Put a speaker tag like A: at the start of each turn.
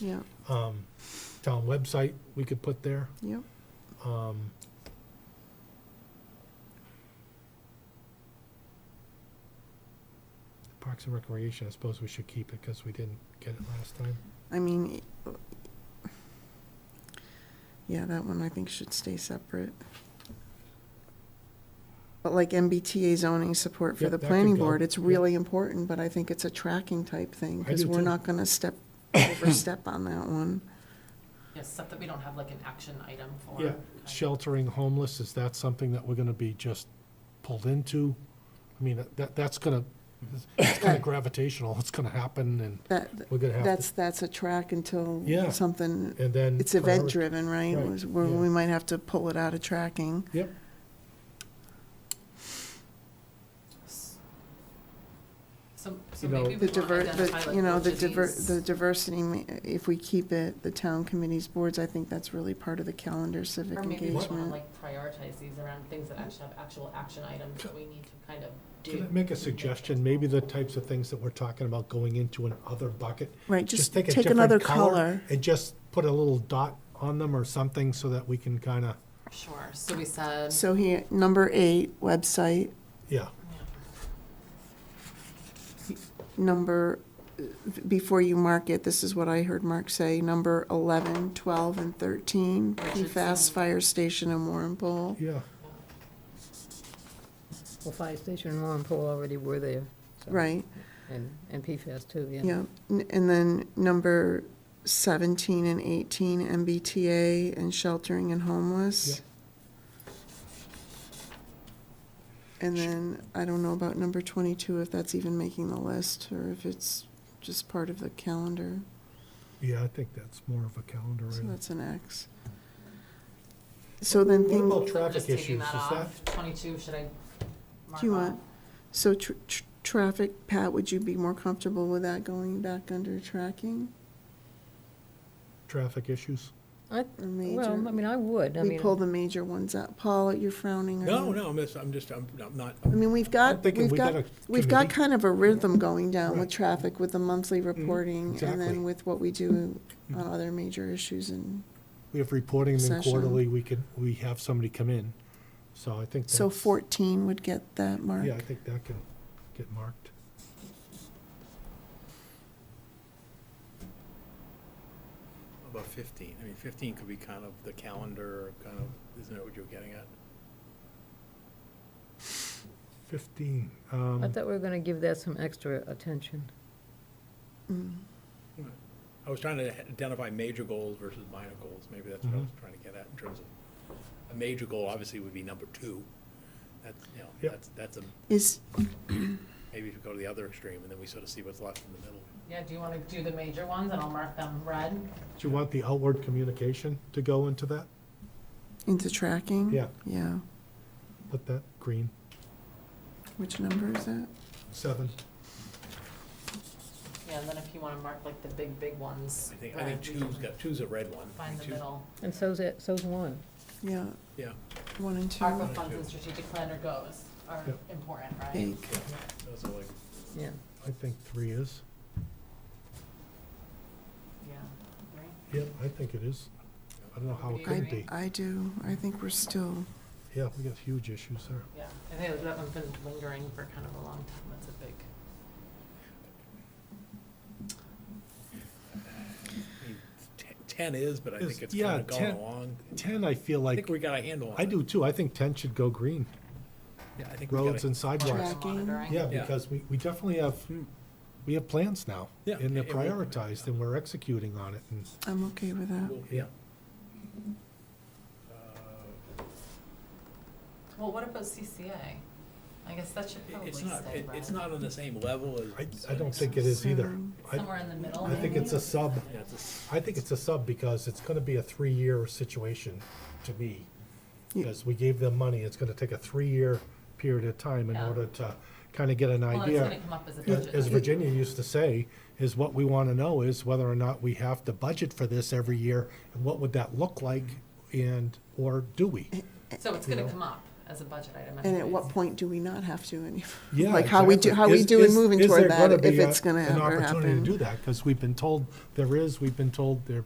A: Yeah,
B: um, town website we could put there.
A: yep.
B: Um, Parks and Recreation, I suppose we should keep it because we didn't get it last time.
A: I mean, i- yeah, that one I think should stay separate. But like MBTA zoning support for
B: Yep,
A: the
B: that could
A: planning
B: go.
A: board, it's
B: Yep.
A: really important, but I think it's a tracking type thing,
B: I
A: because
B: do
A: we're
B: too.
A: not gonna step, overstep on that one.
C: Yes, except that we don't have like an action item for.
B: Yeah,
C: kind of-
B: sheltering homeless, is that something that we're gonna be just pulled into? I mean, that, that's gonna, it's kinda gravitational, it's gonna happen and
A: That,
B: we're gonna have
A: that's, that's a track until
B: Yeah.
A: something,
B: to, and then.
A: it's event
B: priori-
A: driven, right?
B: Right,
A: Was- Where
B: yeah.
A: we might have to pull it out of tracking.
B: Yep,
C: So, so
B: You know-
C: maybe we
A: The
C: want to
A: diver,
C: identify
A: the,
C: like
A: you know, the
C: which of
A: diver,
C: these-
A: the diversity, ma- if we keep it, the town committees, boards, I think that's really part of the calendar civic
C: Or maybe we want to
A: engagement.
C: like prioritize these around things that actually have actual action items that we need to kind of do.
B: can I make a suggestion, maybe the types of things that we're talking about going into an other bucket
A: Right,
B: just
A: just
B: take a
A: take
B: different
A: another
B: color
A: color.
B: and just put a little dot on them or something so that we can kind of,
C: Sure, so we said,
A: So here, number eight, website,
B: yeah,
A: number, uh, before you mark it, this is what I heard Mark say, number eleven, twelve, and thirteen, PFAS
C: Richardson.
A: fire station in Warren Pool.
B: yeah.
D: Well, fire station and Warren Pool already were there. so-
A: Right,
D: And, and PFAS too, yeah.
A: yeah, N- and then number seventeen and eighteen, MBTA and sheltering and homeless. And then, I don't know about number twenty-two, if that's even making the list, or if it's just part of the calendar,
B: Yeah, I think that's more of a calendar.
A: so
B: item.
A: that's an X. So then
B: What
A: thing,
B: about
C: so I'm
B: traffic
C: just
B: issues?
C: taking
B: Is
C: that
B: that,
C: off, twenty-two, should I mark
A: do you
C: off?
A: want, so tr- tr- traffic, Pat, would you be more comfortable with that going back under tracking?
B: traffic issues?
D: I,
A: Or
D: well,
A: major,
D: I mean, I would, I
A: we
D: mean,
A: pull the major ones out, Paul, you're frowning. or
E: No,
B: Mm-hmm.
A: not?
E: no, I'm just, I'm just, I'm I'm not,
A: I mean, we've
B: I'm
A: got,
B: thinking
A: we've
B: we
A: got,
B: got
A: we've got
B: committee.
A: kind of a rhythm going down
B: Right. Mm-hmm.
A: with traffic, with the monthly reporting, and
B: exactly. Mm-hmm.
A: then with what we do on other major issues and,
B: We have reporting them
A: session.
B: quarterly, we could, we have somebody come in, so I think.
A: so
B: that's-
A: fourteen would get that mark.
B: Yeah, I think that can get marked.
E: about 15. I mean, 15 could be kind of the calendar, kind of, isn't that what you're getting at?
B: Fifteen,
D: I
B: um,
D: thought we were gonna give that some extra attention.
A: Mm.
E: I was trying to identify major goals versus minor goals. Maybe that's what I was
B: Mm-hmm.
E: trying to get at in terms of, a major goal obviously would be number two. That's, you know,
B: Yep.
E: that's, that's a,
A: Is,
E: maybe if you go to the other extreme and then we sort of see what's left in the middle.
C: Yeah, do you want to do the major ones and I'll mark them red?
B: do you want the outward communication to go into that?
A: into tracking?
B: Yeah.
A: Yeah,
B: Put that green,
A: which number is that?
B: seven.
C: Yeah, and then if you want to mark like the big, big ones.
E: I think, I think
C: red, we can
E: two's got, two's a red one. I
C: Find
E: mean,
C: the
E: two-
C: middle.
D: And so's that, so's one.
A: Yeah,
E: Yeah,
A: one and two,
C: ARPA funds and strategic planner goes are
B: Yep.
C: important, right?
A: big,
E: those are like,
D: yeah.
B: I think three is.
C: Yeah, right?
B: Yeah, I think it is. I don't know how it could
A: I,
B: be.
A: I do, I think we're still,
B: Yeah, we got huge issues there.
C: Yeah, I think that one's been lingering for kind of a long time, that's a big.
E: I mean, te- 10 is, but I
B: Is-
E: think it's
B: yeah,
E: kind of going
B: 10
E: along.
B: Ten, I feel
E: I
B: like,
E: think we got a handle on it.
B: I do too. I think ten should go green,
E: Yeah, I think we got
B: roads
E: a
B: and sidewalks.
A: Tracking.
C: Monitoring.
B: Yeah,
E: Yeah.
B: because we, we definitely have, we have plans now.
E: Yeah.
B: And they're
E: And we-
B: prioritized and we're executing on it and,
A: I'm okay with that.
E: Yeah. Uh,
C: Well, what about CCA? I guess that should probably
E: It's
C: stay
E: not,
C: red.
E: it- it's not on the same level as.
B: I, I don't think it is either. I,
C: Somewhere in the middle,
B: I think it's a sub,
E: Yeah, it's a s-
B: I think it's a sub because it's gonna be a three-year situation to me.
A: Yeah.
B: Because we gave them money, it's gonna take a three-year period of time in
C: Yeah.
B: order to kinda get an
C: Well, it's gonna
B: idea.
C: come up as a
B: As
C: budget.
B: as
C: item.
B: Virginia used to say, is what we wanna know is whether or not we have to budget for this every year, and what would that look like, and, or do we?
C: So it's gonna
B: you know.
C: come up as a budget item.
A: And at
C: anyways.
A: what point do we not have to anymore?
B: Yeah,
A: Like how we do,
B: exactly.
A: how we
B: Is-
A: do in
B: is-
A: moving
B: is
A: toward
B: there
A: that,
B: gonna
A: if
B: be a-
A: it's gonna ever
B: An opportunity to
A: happen.
B: do that, because we've been told there is, we've been told there